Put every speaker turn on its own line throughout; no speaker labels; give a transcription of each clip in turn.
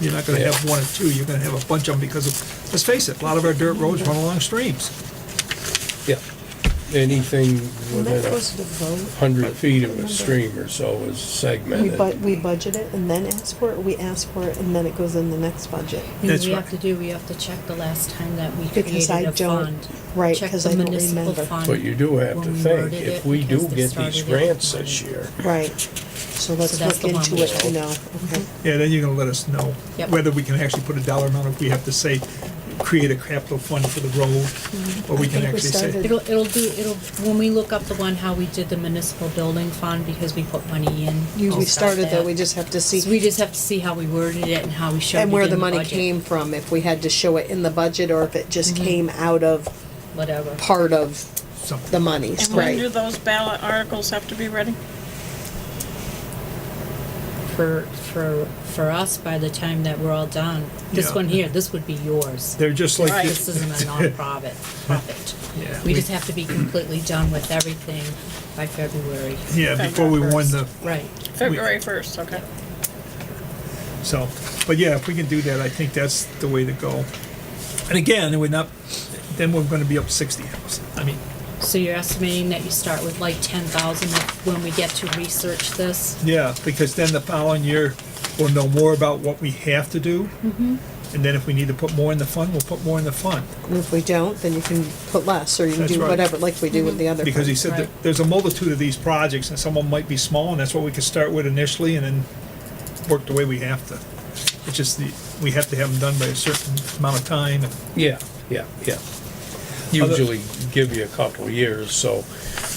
You're not gonna have one or two, you're gonna have a bunch of them because of, let's face it, a lot of our dirt roads run along streams.
Yeah, anything
When that
within
goes to
a
vote,
hundred feet of a
Remember.
stream or so is
we
segmented.
bu- we budget it and then ask for it, we ask for it and then it goes in the next budget.
That's
Things we
right.
have to do, we have to check the last time that we
Because
created
I
a
don't-
fund.
right,
Check
'cause
the
I don't
municipal
remember.
fund
But you do have to
when we
think,
worded
if
it,
we do
because they
get these
started it.
grants this year,
Right, so let's
So that's
look
the one
into
we Mm-hmm.
it to
should-
know, okay.
Yeah, then you're gonna let us know
Yep.
whether we can actually put a dollar amount, if we have to say, create a capital fund for the road, or we
Mm-hmm. I
can
think we
actually say,
started-
It'll, it'll do, it'll, when we look up the one, how we did the municipal building fund, because we put money in.
You, we
we'll start
started though,
that.
we just have to
So we
see,
just have to see how we worded it and how we showed it in
and
the
where
budget. Mm-hmm.
the money came from, if we had to show it in the budget or if it just came out of
Whatever.
part of the
something.
monies,
And when do
right?
those ballot articles have to be ready?
For, for, for us, by the time that we're all done, this
Yeah.
one here, this would be yours.
They're just like,
Right.
This isn't a nonprofit,
Yeah.
profit. We just have to be completely done with everything by February.
yeah, before we won the,
Right.
February first, okay.
So, but yeah, if we can do that, I think that's the way to go. And again, we're not, then we're gonna be up sixty hours. I mean,
So you're estimating that you start with like ten thousand when we get to research this?
yeah, because then the following year, we'll know more about what we have to do. And then if we need to put more in the fund, we'll put more in the fund.
And if we don't, then you can put less, or you can
That's
do
right.
whatever, like we do with
Mm-hmm.
the other.
Because he
funds.
said that
Right.
there's a multitude of these projects and some of them might be small and that's what we could start with initially and then work the way we have to. It's just the, we have to have them done by a certain amount of time.
yeah, yeah, yeah. Usually give you a couple of years, so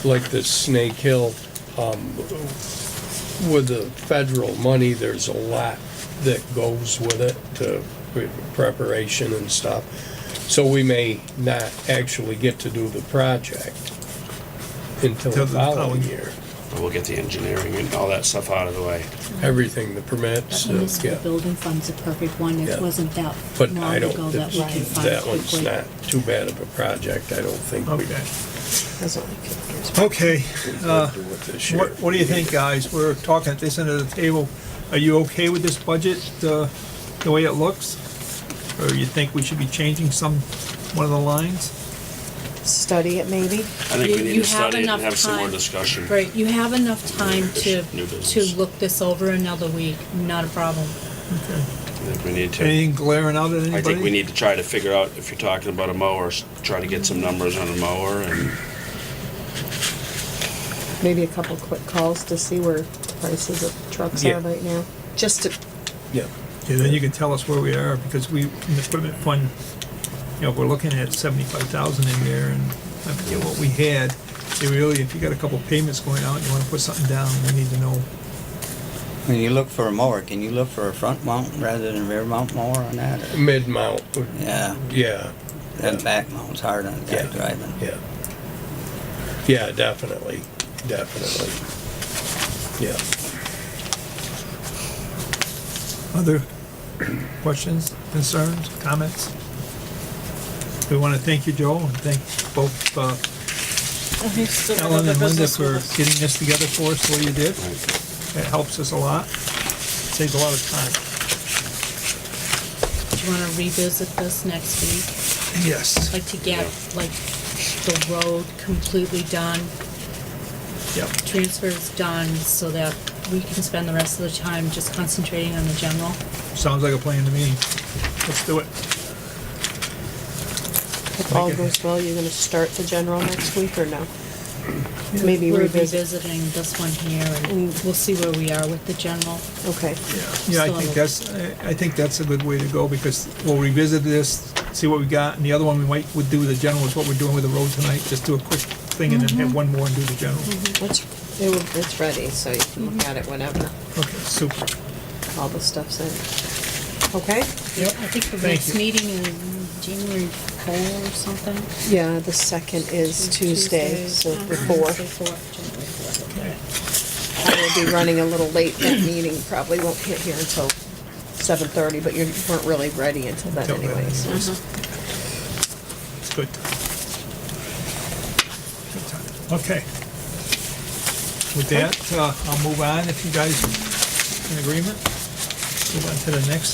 like this Snake Hill, um, with the federal money, there's a lot that goes with it to pre- preparation and stuff. So we may not actually get to do the project
Till
until the
the
following
following-
year.
We'll get the engineering and all that stuff out of the way.
Everything, the permits,
The
uh,
municipal
yeah.
building fund's a perfect one,
Yeah.
it wasn't that
But I
long
don't,
ago that we can
it's-
find
that one's
quickly.
not too bad of a project, I don't think we
Okay,
That's all I can-
okay.
we could do it this year.
Uh, What, what do you think, uh? guys? We're talking at this end of the table. Are you okay with this budget, uh, the way it looks? Or you think we should be changing some, one of the lines?
Study it maybe,
I think we
You-
need
you
to study it
enough
and have some more
time-
discussion.
Right, you have enough time to,
New
to
business.
look this over another week, not a problem.
I think we need to,
Anything glaring out at anybody?
I think we need to try to figure out if you're talking about a mower, s- try to get some numbers on a mower and,
maybe a couple quick calls to see where prices of trucks
Yeah.
are right now, just to
Yeah,
Yeah, then you can tell us where we are, because we, in the equipment fund, you know, we're looking at seventy-five thousand in there, and I forget what we had. So really, if you got a couple payments going out, and you wanna put something down, we need to know.
When you look for a mower, can you look for a front mount rather than a rear mount mower on that? Or,
Mm. mid-mount, would-
yeah,
yeah,
that back mount's hard on a guy
Yeah.
driving.
yeah. Yeah, definitely, definitely. Yeah,
Other questions, concerns, comments? We want to thank you, Joel, and thank both uh,
He's still in
Ellen
the
and Linda
business
for
with us.
getting this together for us the way you did. It helps us a lot. Saves a lot of time.
Do you wanna revisit this next week?
Yes.
Like to get, like, the road completely done,
Yep.
transfers done, so that we can spend the rest of the time just concentrating on the general?
Sounds like a plan to me. Let's do it.
If all
Okay.
goes well, you're gonna start the general next week or no? Maybe
We're
revisit,
revisiting this one here, and
Mm.
we'll see where we are with the general.
okay,
Yeah, I
So-
think that's, I I think that's a good way to go because we'll revisit this, see what we got. And the other one we might, would do with the general is what we're doing with the road tonight. Just do a quick thing and then have one more and do the general.
Mm-hmm. it's, it will- it's ready, so you can look at it whenever
Okay, super.
all the stuff's in. Okay,
Yep.
I think the
Thank
next
you.
meeting is January four or something.
yeah, the second is Tuesday, so the fourth.
Tuesday, four, January four.
I will be running a little late, that meeting probably won't hit here until seven thirty, but you weren't really ready until then
Till then.
anyways.
Uh-huh.
It's good. time. Good time. Okay. With that, uh, I'll move on if you guys in agreement. Move on to the next